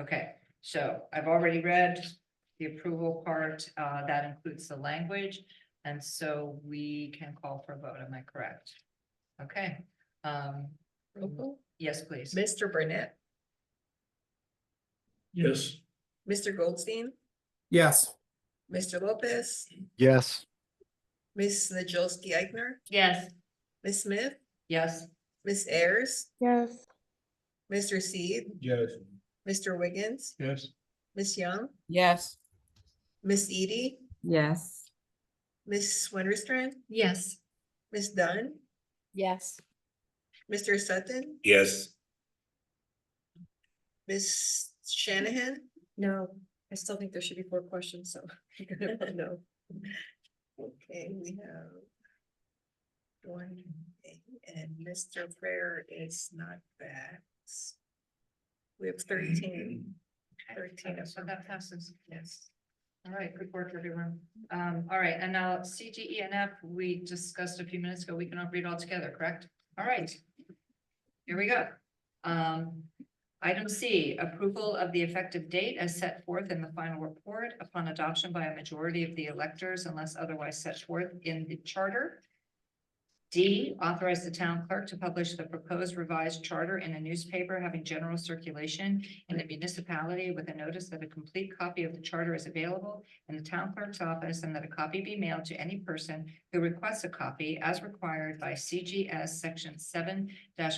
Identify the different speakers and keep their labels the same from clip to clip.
Speaker 1: Okay, so I've already read the approval part, uh, that includes the language, and so we can call for a vote, am I correct? Okay, um, yes, please.
Speaker 2: Mr. Burnett,
Speaker 3: Yes.
Speaker 2: Mr. Goldstein,
Speaker 4: Yes.
Speaker 2: Mr. Lopez,
Speaker 5: Yes.
Speaker 2: Ms. Najolski Eichner,
Speaker 1: Yes.
Speaker 2: Ms. Smith,
Speaker 1: Yes,
Speaker 2: Ms. Ayers,
Speaker 6: yes,
Speaker 2: Mr. Seed,
Speaker 3: Yes.
Speaker 2: Mr. Wiggins,
Speaker 3: Yes.
Speaker 2: Ms. Young,
Speaker 7: Yes.
Speaker 2: Ms. Edie,
Speaker 7: Yes.
Speaker 2: Ms. Winterstrand,
Speaker 1: yes,
Speaker 2: Ms. Dunn,
Speaker 7: Yes.
Speaker 2: Mr. Sutton,
Speaker 3: Yes.
Speaker 2: Ms. Shanahan,
Speaker 8: No, I still think there should be four questions, so. I'm gonna vote No.
Speaker 2: Okay, we have. One, thing, and Mr. Prayer is not back. We have thirteen. Thirteen of
Speaker 1: so that passes.
Speaker 2: Yes.
Speaker 1: All right, good work, everyone. Um, all right, and now CGE and F, we discussed a few minutes ago, we cannot read all together, correct? All right. Here we go. Um, item C, approval of the effective date as set forth in the final report upon adoption by a majority of the electors unless otherwise set forth in the charter. D, authorize the town clerk to publish the proposed revised charter in a newspaper having general circulation in the municipality with a notice that a complete copy of the charter is available in the town clerk's office and that a copy be mailed to any person who requests a copy as required by CGS section seven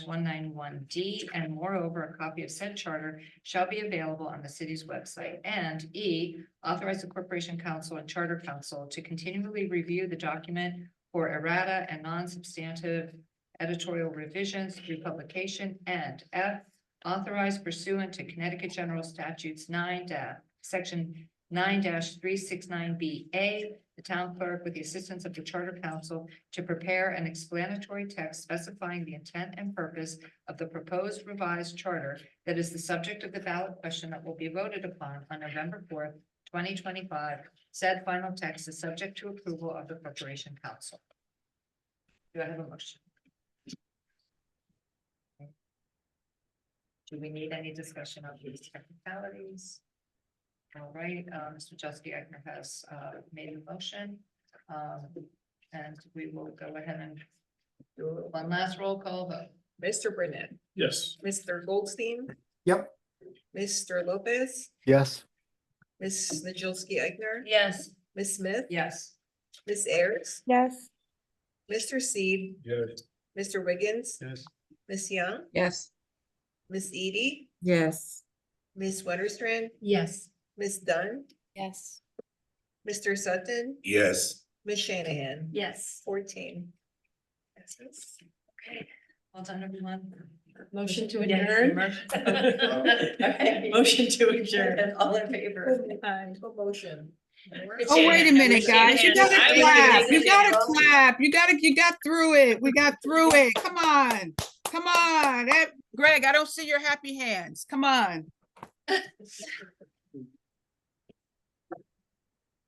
Speaker 1: one nine one D. And moreover, a copy of said charter shall be available on the city's website. And E, authorize the corporation council and charter council to continually review the document for errata and non-substantive editorial revisions through publication. And F, authorized pursuant to Connecticut General Statutes nine da- section nine three six nine B A, the town clerk with the assistance of the charter council to prepare an explanatory text specifying the intent and purpose of the proposed revised charter that is the subject of the ballot question that will be voted upon on November fourth, twenty twenty-five. Said final text is subject to approval of the corporation council. Do I have a motion? Do we need any discussion of these technicalities? All right, uh, Mr. Jusky Agner has, uh, made a motion, um, and we will go ahead and do one last roll call vote.
Speaker 2: Mr. Burnett,
Speaker 3: Yes.
Speaker 2: Mr. Goldstein.
Speaker 4: Yep.
Speaker 2: Mr. Lopez,
Speaker 5: Yes.
Speaker 2: Ms. Najolski Eichner,
Speaker 1: Yes.
Speaker 2: Ms. Smith,
Speaker 1: Yes.
Speaker 2: Ms. Ayers,
Speaker 6: yes.
Speaker 2: Mr. Seed,
Speaker 3: Yes.
Speaker 2: Mr. Wiggins,
Speaker 3: Yes.
Speaker 2: Ms. Young,
Speaker 7: Yes.
Speaker 2: Ms. Edie,
Speaker 7: Yes.
Speaker 2: Ms. Winterstrand,
Speaker 1: Yes.
Speaker 2: Ms. Dunn,
Speaker 7: Yes.
Speaker 2: Mr. Sutton,
Speaker 3: Yes.
Speaker 2: Ms. Shanahan.
Speaker 1: Yes.
Speaker 2: Fourteen.
Speaker 1: Okay, well done, everyone.
Speaker 8: Motion to
Speaker 1: Yes,
Speaker 8: adjourn.
Speaker 1: motion.
Speaker 8: Motion to adjourn.
Speaker 1: And All in favor?
Speaker 2: Motion.
Speaker 7: Oh, wait a minute, guys. You gotta
Speaker 8: Shanahan.
Speaker 7: clap. You gotta clap. You gotta, you got through it. We got through it. Come on. Come on. Eh, Greg, I don't see your happy hands. Come on.